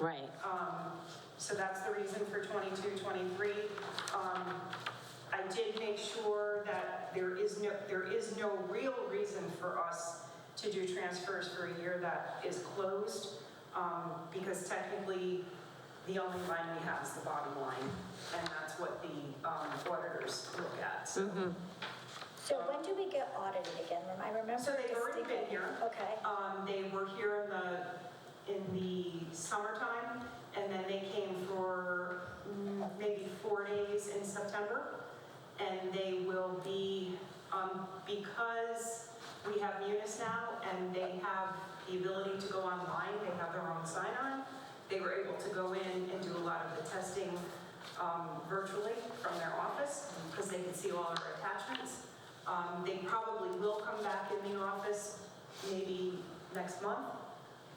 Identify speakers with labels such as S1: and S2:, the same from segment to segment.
S1: Right.
S2: Um, So that's the reason for 22, 23. Um, I did make sure that there is no, there is no real reason for us to do transfers for a year that is closed, um, because technically, the only line we have is the bottom line, and that's what the um, auditors look at. So
S3: So when do we get audited again? Rem- I remember.
S2: So they've already been
S3: distinctly-
S2: here.
S3: Okay,
S2: Um, they were here in the, in the summertime, and then they came for mm, maybe four days in September. And they will be, um, because we have Munis now, and they have the ability to go online, they have their own sign-on, they were able to go in and do a lot of the testing, um, virtually from their office, because they could see all our attachments. Um, They probably will come back in the office maybe next month,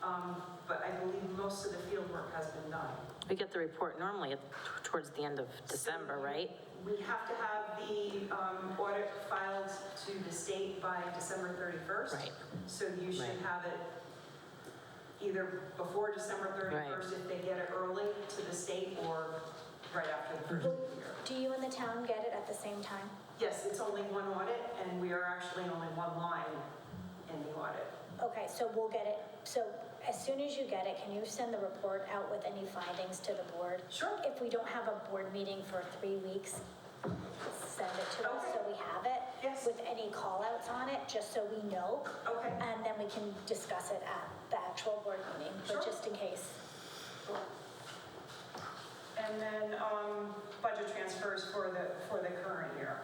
S2: um, but I believe most of the field work has been done.
S1: We get the report normally at- towards the end of December, right?
S2: We have to have the um, audit filed to the state by December 31st.
S1: Right.
S2: So you should
S1: Right.
S2: have it either before December 31st if they get it early to the state or right after the first of the year.
S3: do you and the town get it at the same time?
S2: Yes, it's only one audit and we are actually only one line in the audit.
S3: Okay, so we'll get it, so as soon as you get it, can you send the report out with any findings to the board?
S2: Sure.
S3: If we don't have a board meeting for three weeks, send it to us so
S2: Okay.
S3: we have it.
S2: Yes.
S3: With any callouts on it, just so we know,
S2: Okay.
S3: and then we can discuss it at the actual board meeting,
S2: Sure.
S3: but just in case.
S2: And then um, budget transfers for the, for the current year.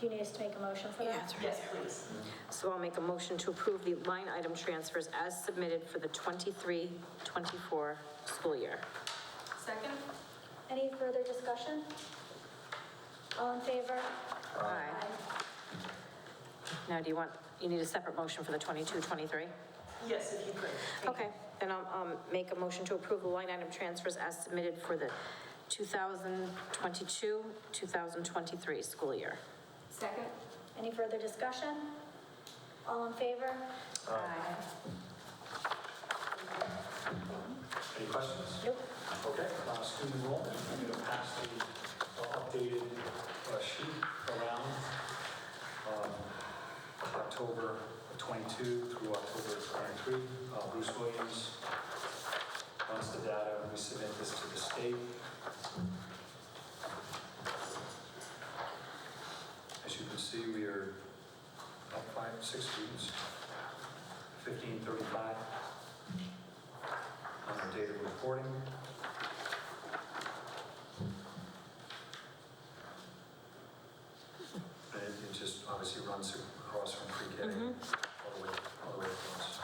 S3: Do you need us to make a motion for that?
S2: Yes, please.
S1: So I'll make a motion to approve the line item transfers as submitted for the 23, 24 school year.
S2: Second?
S3: Any further discussion? All in favor?
S1: Aye. Now, do you want, you need a separate motion for the 22, 23?
S2: Yes, if you could. Thank you.
S1: Okay, then I'll um, make a motion to approve the line item transfers as submitted for the 2022, 2023 school year.
S4: Second?
S3: Any further discussion? All in favor?
S1: Aye.
S5: Any questions?
S3: Nope.
S5: Okay, uh, student enrollment, I'm going to pass the uh, updated uh, sheet around. um, October 22 through October 23. Uh, Bruce Williams wants the data, we submit this to the state. As you can see, we are up five, six students, 1535 on our date of reporting. And it- it just obviously runs across from pre-K all the way, all the way across.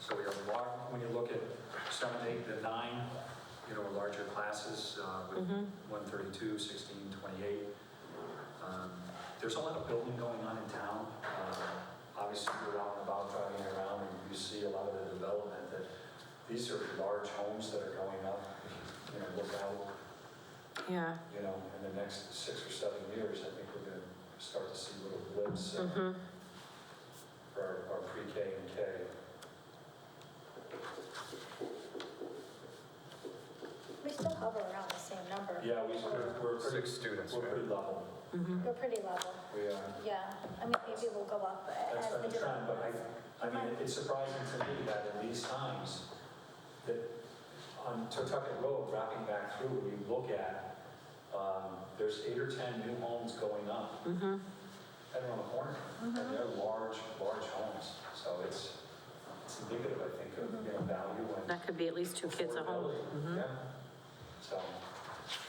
S5: So we have a lot, when you look at seven, eight, and nine, you know, larger classes uh,
S1: Mm-hmm.
S5: with 132, 16, 28. Um, There's a lot of building going on in town. Uh, Obviously, you're out and about driving around and you see a lot of the development that, these are large homes that are going up. You know, look out
S1: Yeah,
S5: you know, in the next six or seven years, I think we're gonna start to see little blips
S1: Mm-hmm.
S5: uh, for our, our pre-K and K.
S3: We still hover around the same number.
S5: Yeah, we, we're, we're pretty,
S6: Six students,
S5: we're
S6: right?
S5: pretty level.
S1: mm-hmm,
S3: We're pretty level,
S5: We uh, are,
S3: yeah. I mean, maybe we'll go up
S5: that's
S3: as
S5: been
S3: the
S5: the trend,
S3: development.
S5: but I, I mean, it- it's surprising to me that in these times, that on Tucket Road, wrapping back through, when you look at, um, there's eight or 10 new homes going up.
S1: mm-hmm.
S5: Right around the corner, and they're large, large homes, so it's, it's indicative, I think, of, you know, value and.
S1: that could be at least two kids at home. Mm-hmm.
S5: affordability. Yeah, so,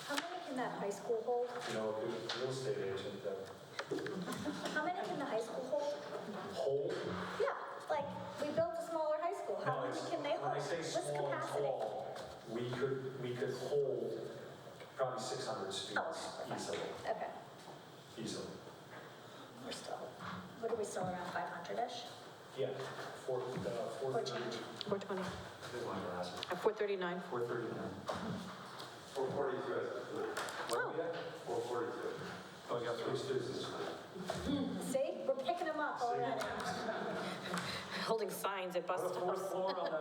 S3: How many can that high school hold?
S5: you know, a good real estate agent that
S3: How many can the high school hold?
S5: hold.
S3: Yeah, like, we built a smaller high school.
S5: No,
S3: How many
S5: it's-
S3: can they
S5: When
S3: hold?
S5: I say
S3: What's
S5: small and
S3: capacity?
S5: tall, we could, we could hold probably 600 students
S3: Oh, okay.
S5: easily,
S3: Okay,
S5: easily.
S3: we're still, what are we still around 500-ish?
S5: Yeah, four, uh, four.
S3: Or change?
S1: 420,
S5: Good one, Ross.
S1: uh, 439.
S5: 439.
S6: Four forty-two,
S1: Oh.
S6: four forty-two.
S5: Oh, yeah, three students.
S3: See, we're picking them up already.
S1: Holding signs at bus
S5: What a fourth
S1: stops.
S5: floor on